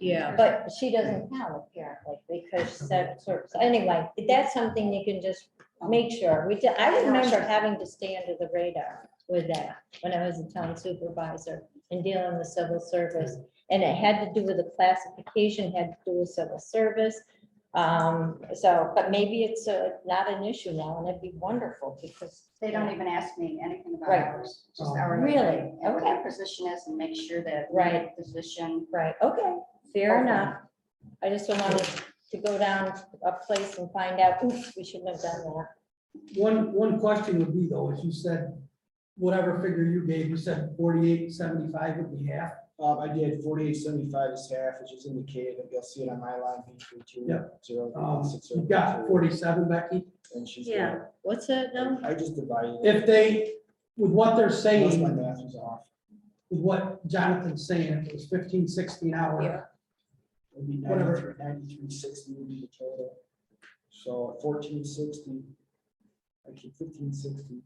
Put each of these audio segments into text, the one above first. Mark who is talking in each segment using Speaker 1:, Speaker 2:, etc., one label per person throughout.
Speaker 1: Yeah.
Speaker 2: But she doesn't count apparently because said service. Anyway, that's something you can just make sure. We did, I remember having to stay under the radar with that when I was a town supervisor and dealing with civil service. And it had to do with the classification, had to do with civil service. Um, so, but maybe it's uh, not an issue now and it'd be wonderful because.
Speaker 3: They don't even ask me anything about
Speaker 2: Right. Oh.
Speaker 3: ours, just our.
Speaker 2: Really?
Speaker 3: And what
Speaker 2: Okay.
Speaker 3: their position is and make sure that.
Speaker 2: Right.
Speaker 3: Position.
Speaker 2: Right, okay, fair
Speaker 3: Okay.
Speaker 2: enough. I just don't want us to go down a place and find out, oops, we shouldn't have done that.
Speaker 4: One, one question would be though, as you said, whatever figure you gave, you said forty-eight, seventy-five would be half.
Speaker 5: Um, I did forty-eight seventy-five is half, which is indicated, and you'll see it on my line, B three two.
Speaker 4: Yeah.
Speaker 5: Zero,
Speaker 4: Um,
Speaker 5: six, zero,
Speaker 4: you've got
Speaker 5: two,
Speaker 4: forty-seven, Becky.
Speaker 5: And she's.
Speaker 2: Yeah.
Speaker 5: got-
Speaker 2: What's it now?
Speaker 3: um,
Speaker 5: I just divided. it.
Speaker 4: If they, with what they're
Speaker 5: Unless
Speaker 4: saying,
Speaker 5: my
Speaker 4: with
Speaker 5: math was off.
Speaker 4: what Jonathan's saying, if it was fifteen, sixteen hour,
Speaker 5: It'd be
Speaker 4: Whatever.
Speaker 5: ninety-three, ninety-three sixty would be the total. So fourteen sixty. Actually fifteen sixty.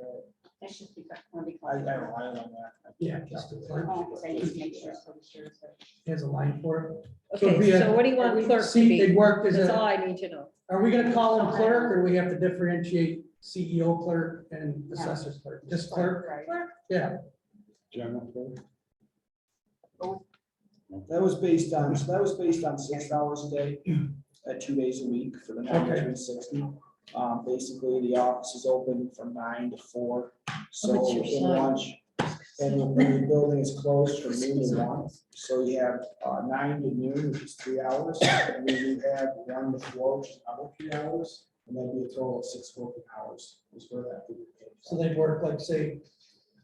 Speaker 5: Uh,
Speaker 3: They should be, want to be.
Speaker 5: I, I relied on that. I
Speaker 4: Yeah.
Speaker 5: calculated.
Speaker 3: Oh, so I need to make sure. so I'm sure it's a-
Speaker 4: has a line for So it'd
Speaker 1: Okay,
Speaker 4: be a-
Speaker 1: so what do you want
Speaker 4: it.
Speaker 1: clerk to
Speaker 4: See, They
Speaker 1: be?
Speaker 4: worked as
Speaker 1: That's all
Speaker 4: a,
Speaker 1: I need to know.
Speaker 4: are we gonna call them clerk or we have to differentiate CEO clerk and assessor's clerk? Just clerk,
Speaker 3: Right.
Speaker 4: yeah,
Speaker 5: That was based on, so that was based on six hours a day, at two days a week for the ninety-three sixty. Um, basically, the office is open from nine to four,
Speaker 2: What's
Speaker 5: so
Speaker 2: your
Speaker 5: in
Speaker 2: slide?
Speaker 5: lunch. And the- and the building is closed from noon to one, so you have uh, nine to noon, which is three hours, and then you have one to four, which is another three hours. And that'd be a total of six working hours, is where that. would be.
Speaker 4: so they work like, say,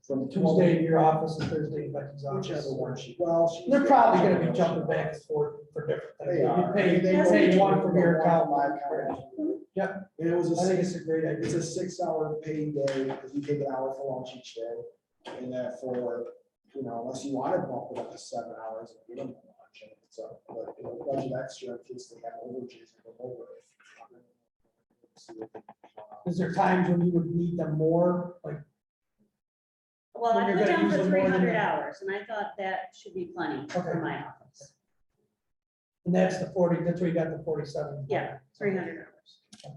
Speaker 5: From
Speaker 4: Tuesday in your office and Thursday in Becky's office.
Speaker 5: Whichever one she, well. she's-
Speaker 4: They're probably gonna be jumping back and forth for different things.
Speaker 5: They
Speaker 4: You
Speaker 5: are.
Speaker 4: pay,
Speaker 5: They will
Speaker 4: pay
Speaker 5: be
Speaker 4: one from your
Speaker 5: one
Speaker 4: account,
Speaker 5: from my
Speaker 4: one from-
Speaker 5: account.
Speaker 4: Yep.
Speaker 5: And it was a
Speaker 4: I think
Speaker 5: six,
Speaker 4: it's a great
Speaker 5: it's
Speaker 4: idea.
Speaker 5: a six hour paid day, because you take an hour for lunch each day. And then for, you know, unless you wanna bump it up to seven hours, you don't want to change it, so, but it'll budget extra in case they have overages or over.
Speaker 4: Is there times when you would need them more, like,
Speaker 6: Well,
Speaker 4: When
Speaker 6: I
Speaker 4: you're
Speaker 6: put
Speaker 4: gonna
Speaker 6: down
Speaker 4: use
Speaker 6: for
Speaker 4: them more
Speaker 6: three
Speaker 4: than
Speaker 6: hundred
Speaker 4: that.
Speaker 6: hours, and I thought that should be plenty
Speaker 4: Okay.
Speaker 6: for my office.
Speaker 4: and that's the forty, that's where you got the forty-seven?
Speaker 6: Yeah, three hundred hours.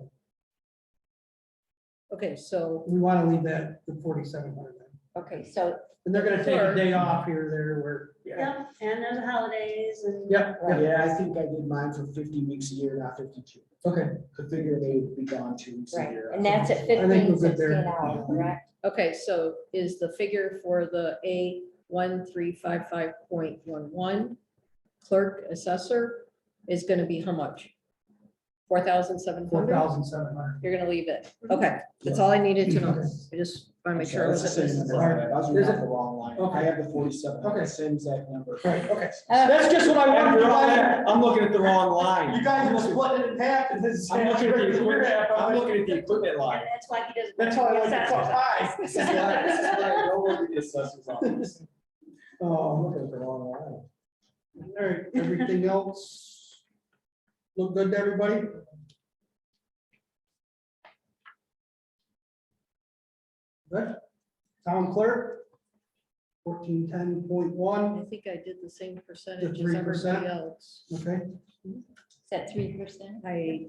Speaker 2: Okay, so,
Speaker 4: We wanna leave that to forty-seven hundred.
Speaker 2: okay, so,
Speaker 4: And they're gonna take a
Speaker 2: Sure.
Speaker 4: day off here, or there, where, yeah.
Speaker 6: Yep, and there's the holidays and.
Speaker 4: Yep, yep,
Speaker 5: Yeah, I think I did mine for fifty weeks a year, not fifty-two.
Speaker 4: okay,
Speaker 5: I figure they'd be gone two weeks a
Speaker 2: right,
Speaker 5: year.
Speaker 2: and that's at
Speaker 4: I think we're
Speaker 2: fifteen,
Speaker 4: good
Speaker 2: sixteen
Speaker 4: there.
Speaker 2: hours, correct?
Speaker 1: Okay, so is the figure for the A one three five five point one one clerk assessor is gonna be how much? Four thousand seven
Speaker 4: four
Speaker 1: hundred?
Speaker 4: thousand seven hundred.
Speaker 1: You're gonna leave it? Okay, that's all I needed to know. I just wanna make sure. I
Speaker 5: That's the
Speaker 1: wasn't
Speaker 5: same
Speaker 1: missing
Speaker 5: number.
Speaker 1: something.
Speaker 5: I was
Speaker 4: There's
Speaker 5: reading
Speaker 4: a-
Speaker 5: off the wrong line. I
Speaker 4: Okay.
Speaker 5: have the forty-seven.
Speaker 4: Okay.
Speaker 5: Same exact number.
Speaker 4: Right, okay.
Speaker 2: Uh,
Speaker 5: That's just what I
Speaker 4: wanted to find
Speaker 5: I'm looking at the wrong line.
Speaker 4: You guys were splitting it in half, and this is.
Speaker 5: I'm looking at the equipment, I'm
Speaker 4: That's
Speaker 5: looking at the equipment
Speaker 6: And
Speaker 5: line.
Speaker 6: that's why he doesn't.
Speaker 4: why I like to
Speaker 6: Assessors.
Speaker 4: talk high.
Speaker 5: This is why, this is why I don't look at the assessor's office. Oh, I'm looking at the wrong line.
Speaker 4: All right, everything else? Look good to everybody? Good. Town clerk? Fourteen ten point
Speaker 1: I
Speaker 4: one,
Speaker 1: think I did the same percentage as
Speaker 4: 3%?
Speaker 1: everybody else.
Speaker 4: okay,
Speaker 2: Is that three percent?
Speaker 1: I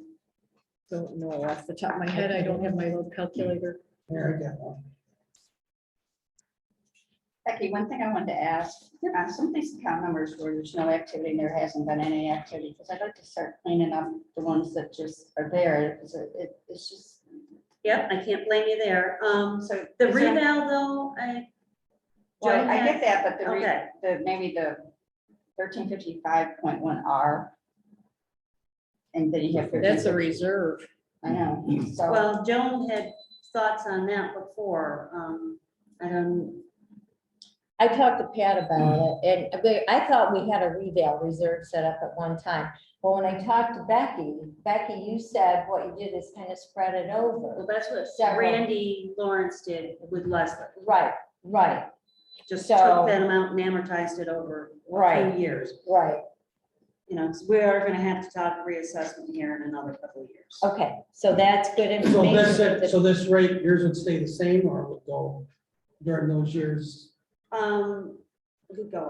Speaker 1: don't know off the top of my head. I don't have my little calculator.
Speaker 4: there I got one.
Speaker 3: Becky, one thing I wanted to ask, on some of these account numbers where there's no activity and there hasn't been any activity, because I'd like to start cleaning up the ones that just are there, because it, it- it's just.
Speaker 6: Yep, I can't blame you there. Um,
Speaker 3: So.
Speaker 6: the
Speaker 3: is there-
Speaker 6: reval though, I.
Speaker 3: Well, I get that, but the, re-
Speaker 6: Okay,
Speaker 3: the, maybe the thirteen fifty-five point one R. And then you have.
Speaker 1: That's a
Speaker 3: 1350.
Speaker 1: reserve.
Speaker 3: I know, so,
Speaker 6: well, Joan had thoughts on that before. Um, I don't,
Speaker 2: I talked to Pat about it, and we- I thought we had a revale reserve set up at one time. But when I talked to Becky, Becky, you said what you did is kind of spread it
Speaker 6: well,
Speaker 2: over.
Speaker 6: that's what
Speaker 2: Several.
Speaker 6: Randy Lawrence did with Leslie.
Speaker 2: Right, right,
Speaker 6: Just
Speaker 2: So-
Speaker 6: took that amount and amortized it over two
Speaker 2: right,
Speaker 6: years.
Speaker 2: right.
Speaker 6: you know, 'cause we are gonna have to talk reassessment here in another couple of years.
Speaker 2: Okay, so that's good
Speaker 4: So
Speaker 2: information.
Speaker 4: this, it- so this rate, yours would stay the same or would go during those years?
Speaker 6: Um, we could go